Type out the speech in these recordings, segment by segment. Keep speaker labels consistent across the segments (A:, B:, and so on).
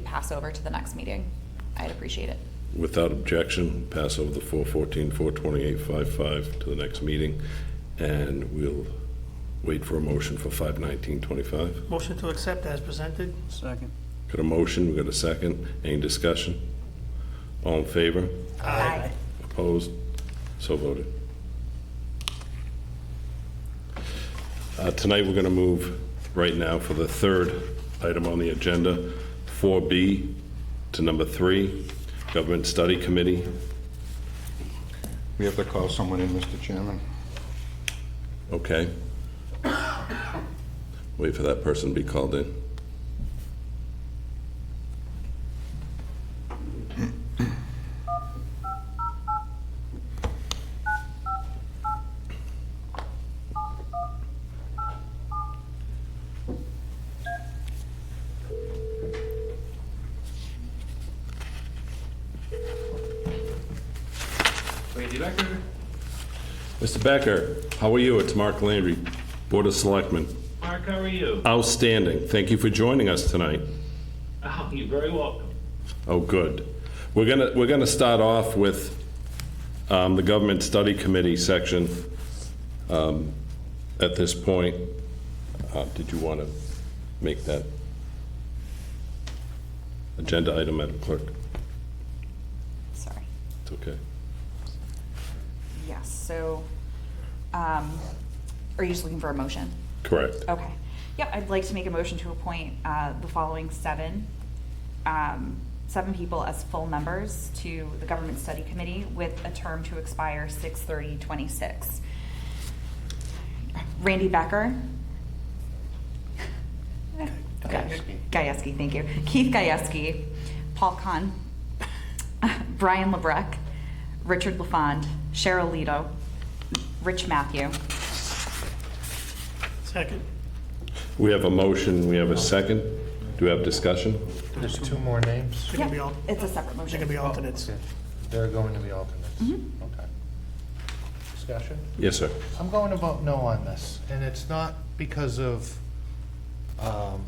A: pass over to the next meeting. I'd appreciate it.
B: Without objection, pass over the 414, 428, 55 to the next meeting, and we'll wait for a motion for 519, 25.
C: Motion to accept as presented?
D: Second.
B: Got a motion, we got a second, any discussion? All in favor?
C: Aye.
B: Opposed? So voted. Uh, Tonight, we're going to move right now for the third item on the agenda, 4B to number 3, Government Study Committee.
E: We have to call someone in, Mr. Chairman.
B: Okay. Wait for that person to be called in. Mr. Becker, how are you? It's Mark Landry, Board of Selectmen.
F: Mark, how are you?
B: Outstanding. Thank you for joining us tonight.
F: Oh, you're very welcome.
B: Oh, good. We're gonna, we're gonna start off with um, the Government Study Committee section um, at this point. Uh, Did you want to make that agenda item, Madam Clerk?
A: Sorry.
B: It's okay.
A: Yes, so, um, are you just looking for a motion?
B: Correct.
A: Okay. Yep, I'd like to make a motion to appoint uh, the following seven, um, seven people as full members to the Government Study Committee with a term to expire 6/30/26. Randy Becker. Gajewski. thank you. Keith Gajewski, Paul Kahn, Brian LeBrecq, Richard LaFond, Cheryl Lido, Rich Matthew.
C: Second.
B: We have a motion, we have a second. Do we have discussion?
G: There's two more names.
C: They're gonna be al-
A: Yep, It's a separate motion.
C: They're gonna be alternates.
G: Oh, They're going to be alternates. Okay. Discussion?
B: Yes, sir.
G: I'm going to vote no on this, and it's not because of, um,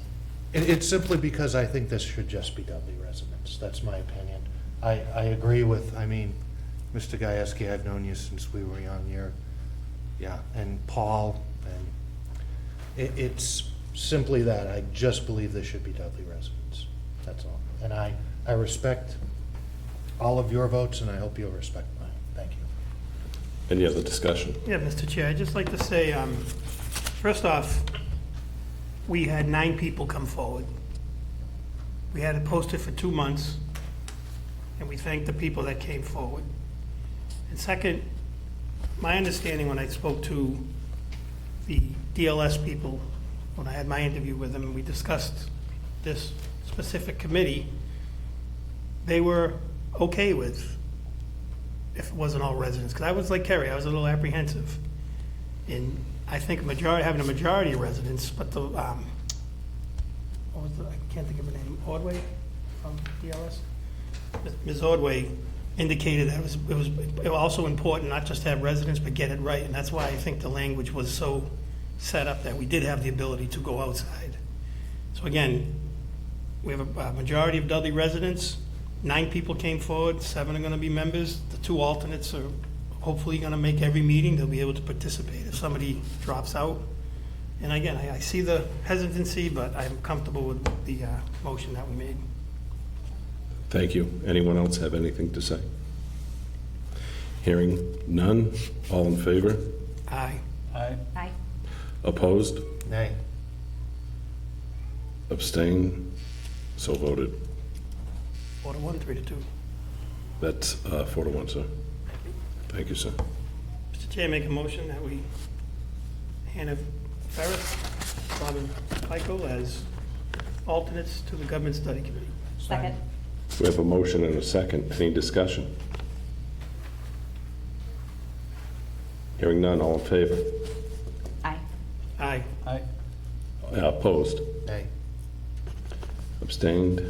G: it, it's simply because I think this should just be Dudley residents. That's my opinion. I, I agree with, I mean, Mr. Gieske, I've known you since we were young, you're, yeah, and Paul, and it, it's simply that. I just believe this should be Dudley residents. That's all. And I, I respect all of your votes, and I hope you'll respect mine. Thank you.
B: Any other discussion?
C: Yeah, Mr. Chair, I'd just like to say, um, first off, we had nine people come forward. We had it posted for two months, and we thank the people that came forward. And second, my understanding when I spoke to the DLS people, when I had my interview with them, we discussed this specific committee, they were okay with if it wasn't all residents, because I was like Kerry, I was a little apprehensive. And I think majority, having a majority of residents, but the, um, what was the, I can't think of her name, Ordway from DLS? Ms. Ordway indicated that it was, it was it was also important not just to have residents, but get it right. And that's why I think the language was so set up that we did have the ability to go outside. So again, we have a uh, majority of Dudley residents. Nine people came forward, seven are going to be members. The two alternates are hopefully going to make every meeting. They'll be able to participate if somebody drops out. And again, I I see the hesitancy, but I'm comfortable with the uh, motion that we made.
B: Thank you. Anyone else have anything to say? Hearing none, all in favor?
C: Aye.
D: Aye.
A: Aye.
B: Opposed?
G: Nay.
B: Abstain? So voted.
C: Four to one, three to two.
B: That's uh, four to one, sir. Thank you, sir.
C: Mr. Chair, make a motion that we, Hannah Ferris, Robin Michael as alternates to the Government Study Committee.
A: Second.
B: We have a motion and a second. Any discussion? Hearing none, all in favor?
A: Aye.
C: Aye.
D: Aye.
B: Uh, Opposed?
G: Nay.
B: Abstained?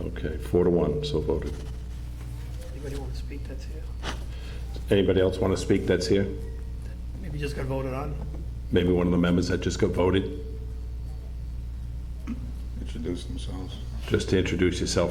B: Okay, four to one, so voted.
C: Anybody want to speak that's here?
B: Anybody else want to speak that's here?
C: Maybe just got voted on.
B: Maybe one of the members that just got voted?
E: Introduce themselves.
B: Just to introduce yourself